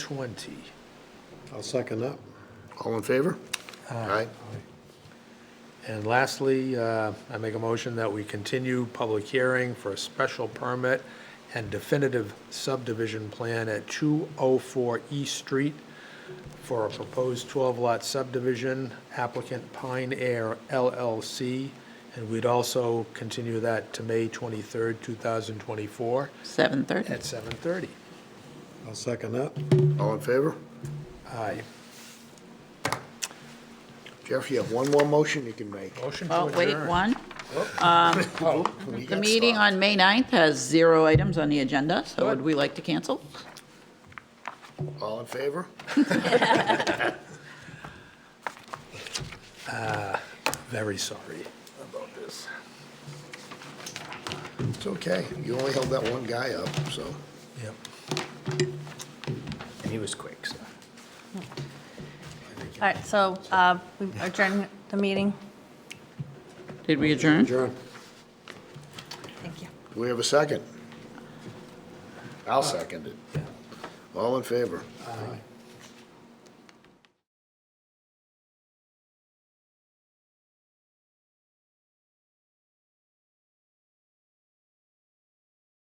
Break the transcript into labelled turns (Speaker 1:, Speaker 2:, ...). Speaker 1: twenty.
Speaker 2: I'll second that. All in favor? Aye.
Speaker 1: And lastly, uh, I make a motion that we continue public hearing for a special permit and definitive subdivision plan at 204 East Street for a proposed 12-lot subdivision, applicant Pine Air LLC, and we'd also continue that to May 23rd, 2024,
Speaker 3: 7:30.
Speaker 1: at 7:30.
Speaker 2: I'll second that. All in favor?
Speaker 1: Aye.
Speaker 2: Jeff, you have one more motion you can make.
Speaker 1: Motion to
Speaker 3: Oh,
Speaker 1: adjourn.
Speaker 3: wait, one.
Speaker 2: You
Speaker 3: Um, The
Speaker 2: got
Speaker 3: meeting
Speaker 2: stuff.
Speaker 3: on May 9th has zero items on the agenda, so would
Speaker 1: Good.
Speaker 3: we like to cancel?
Speaker 2: All in favor?
Speaker 1: Very sorry about this.
Speaker 2: It's okay. You only held that one guy up, so.
Speaker 1: Yep.
Speaker 4: And he was quick, so.
Speaker 5: All right, so uh, we adjourn the meeting.
Speaker 3: Did we adjourn?
Speaker 2: Adjourn.
Speaker 5: Thank you.
Speaker 2: Do we have a second? I'll second it. All in favor? Aye.